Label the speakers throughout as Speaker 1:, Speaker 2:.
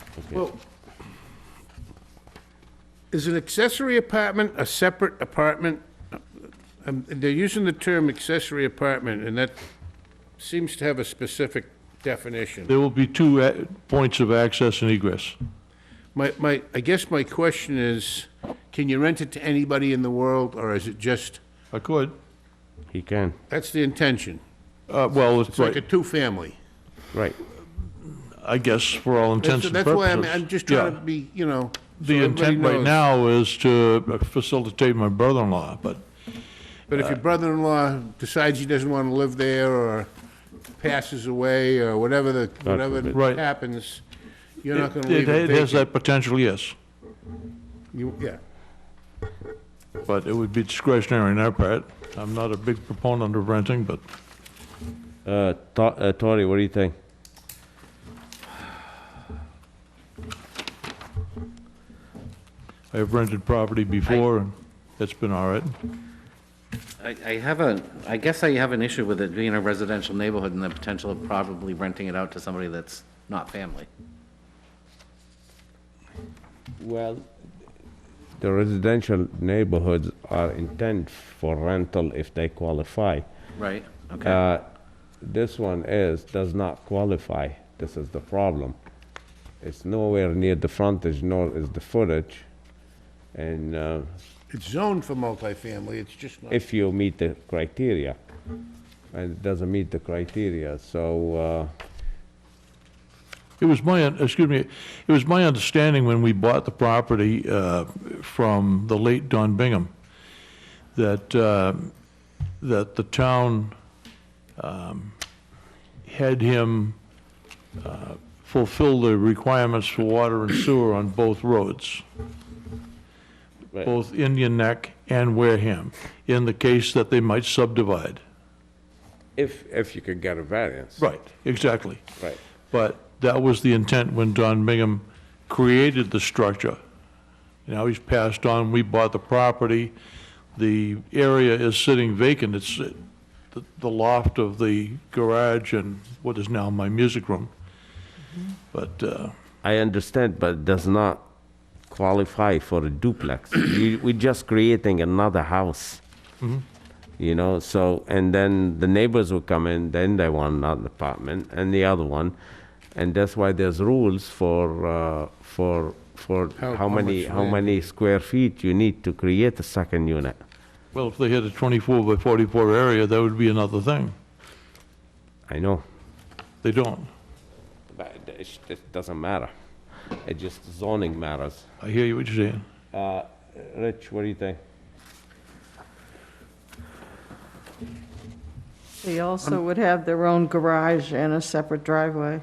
Speaker 1: complicated.
Speaker 2: Well, is an accessory apartment a separate apartment? Um, They're using the term accessory apartment, and that seems to have a specific definition.
Speaker 3: There will be two a- points of access and egress.
Speaker 2: My, my, I guess my question is, can you rent it to anybody in the world, or is it just,
Speaker 3: I could,
Speaker 1: He can,
Speaker 2: that's the intention?
Speaker 3: uh, well,
Speaker 2: It's
Speaker 3: it's
Speaker 2: like a
Speaker 3: right,
Speaker 2: two-family.
Speaker 1: right.
Speaker 3: I guess, for all intents
Speaker 2: That's
Speaker 3: and
Speaker 2: that's
Speaker 3: purposes.
Speaker 2: why I'm, I'm just
Speaker 3: Yeah.
Speaker 2: trying to be, you know. so
Speaker 3: The
Speaker 2: everybody
Speaker 3: intent right
Speaker 2: knows.
Speaker 3: now is to facilitate my brother-in-law, but
Speaker 2: But if your brother-in-law decides he doesn't want to live there, or passes away, or whatever the, whatever
Speaker 3: Right.
Speaker 2: happens, you're not
Speaker 3: it
Speaker 2: gonna leave it
Speaker 3: it
Speaker 2: vacant.
Speaker 3: has that potential, yes.
Speaker 2: You- Yeah,
Speaker 3: But it would be discretionary on our part. I'm not a big proponent of renting, but
Speaker 1: Uh, To- uh, Tony, what do you think?
Speaker 3: I have rented property before, and it's been all right.
Speaker 4: I I have a, I guess I have an issue with it being a residential neighborhood and the potential of probably renting it out to somebody that's not family.
Speaker 1: Well... The residential neighborhoods are intent for rental if they qualify.
Speaker 4: Right, okay.
Speaker 1: Uh, This one is, does not qualify. This is the problem. It's nowhere near the frontage, nor is the footage. And uh,
Speaker 2: it's zoned for multifamily, it's just not,
Speaker 1: if you meet the criteria, and it doesn't meet the criteria, so, uh,
Speaker 3: It was my, un- excuse me, it was my understanding when we bought the property uh, from the late Don Bingham, that, uh, that the town um, had him uh, fulfill the requirements for water and sewer on both roads,
Speaker 1: Right.
Speaker 3: both Indian Neck and Wareham, in the case that they might subdivide.
Speaker 1: if, if you could get a variance.
Speaker 3: Right, exactly.
Speaker 1: Right.
Speaker 3: But that was the intent when Don Bingham created the structure. Now he's passed on, we bought the property, the area is sitting vacant, it's uh, the- the loft of the garage and what is now my music room. But, uh,
Speaker 1: I understand, but it does not qualify for a duplex. You- We're just creating another house. Mm-hmm. You know, so, and then the neighbors will come in, then they want another apartment and the other one. And that's why there's rules for, uh, for, for
Speaker 2: How-
Speaker 1: how
Speaker 2: how
Speaker 1: many,
Speaker 2: much
Speaker 1: how
Speaker 2: land?
Speaker 1: many square feet you need to create a second unit.
Speaker 3: well, if they had a 24 by 44 area, that would be another thing.
Speaker 1: I know,
Speaker 3: They don't.
Speaker 1: but it- it it doesn't matter. It just zoning matters.
Speaker 3: I hear you what you're saying.
Speaker 1: Rich, what do you think?
Speaker 5: They also would have their own garage and a separate driveway.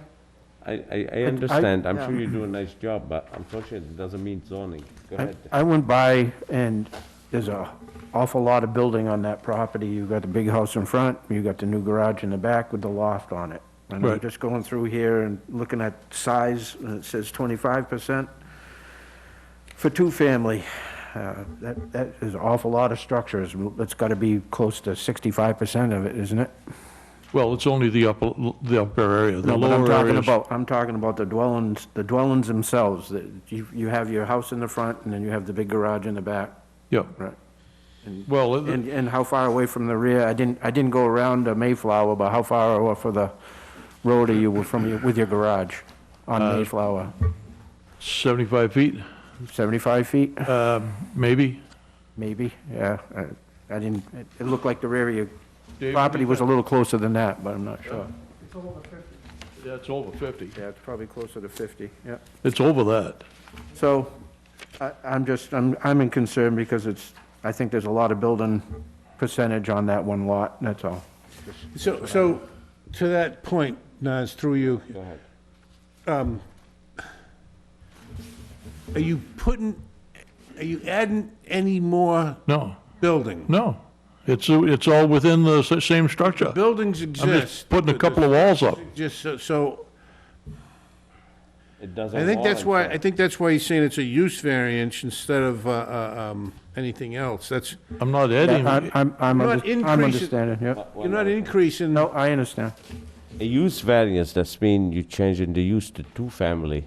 Speaker 1: I, I, I understand, I'm
Speaker 5: Yeah.
Speaker 1: sure you do a nice job, but unfortunately, it doesn't mean zoning. Go
Speaker 6: I-
Speaker 1: ahead.
Speaker 6: I went by, and there's a awful lot of building on that property. You've got the big house in front, you've got the new garage in the back with the loft on it. And I'm
Speaker 3: Right.
Speaker 6: just going through here and looking at size, and it says 25% for two-family. Uh, That, that is an awful lot of structures. It's got to be close to 65% of it, isn't it?
Speaker 3: Well, it's only the upper, the upper area, the
Speaker 6: No, but I'm
Speaker 3: lower
Speaker 6: talking
Speaker 3: area.
Speaker 6: about, I'm talking about the dwellings, the dwellings themselves. that You, you have your house in the front, and then you have the big garage in the back.
Speaker 3: Yeah,
Speaker 6: Right.
Speaker 3: well, uh, it-
Speaker 6: And, and how far away from the rear, I didn't, I didn't go around uh, Mayflower, but how far off of the road are you from, your- with your garage on Mayflower?
Speaker 3: 75 feet,
Speaker 6: 75 feet,
Speaker 3: maybe?
Speaker 6: maybe, yeah. I- I didn't, it- it looked like the rear of
Speaker 3: Dave,
Speaker 6: your property was a little closer than that, but I'm not sure.
Speaker 3: That's over 50.
Speaker 6: Oh, Yeah, it's probably closer to 50, yeah.
Speaker 3: It's over that.
Speaker 6: So, I, I'm just, I'm, I'm in concern because it's, I think there's a lot of building percentage on that one lot, that's all.
Speaker 2: so, so, to that point, Nas, through you. Go ahead. Are you putting, are you adding any more
Speaker 3: No,
Speaker 2: building?
Speaker 3: no. It's, it's all within the s- same structure.
Speaker 2: Buildings
Speaker 3: I'm
Speaker 2: exist.
Speaker 3: just putting a couple of walls up.
Speaker 2: Just, so- so,
Speaker 1: It doesn't
Speaker 2: I think that's why,
Speaker 1: warrant
Speaker 2: I think that's why he's saying it's a use variance instead of, uh, uh, um, anything else, that's,
Speaker 3: I'm not adding,
Speaker 6: I'm, I'm, I'm
Speaker 2: You're not
Speaker 6: under- I'm
Speaker 2: increasing-
Speaker 6: understanding, yeah.
Speaker 1: that.
Speaker 2: you're not increasing.
Speaker 6: No, I understand.
Speaker 1: A use variance, that's mean you changing the use to two-family.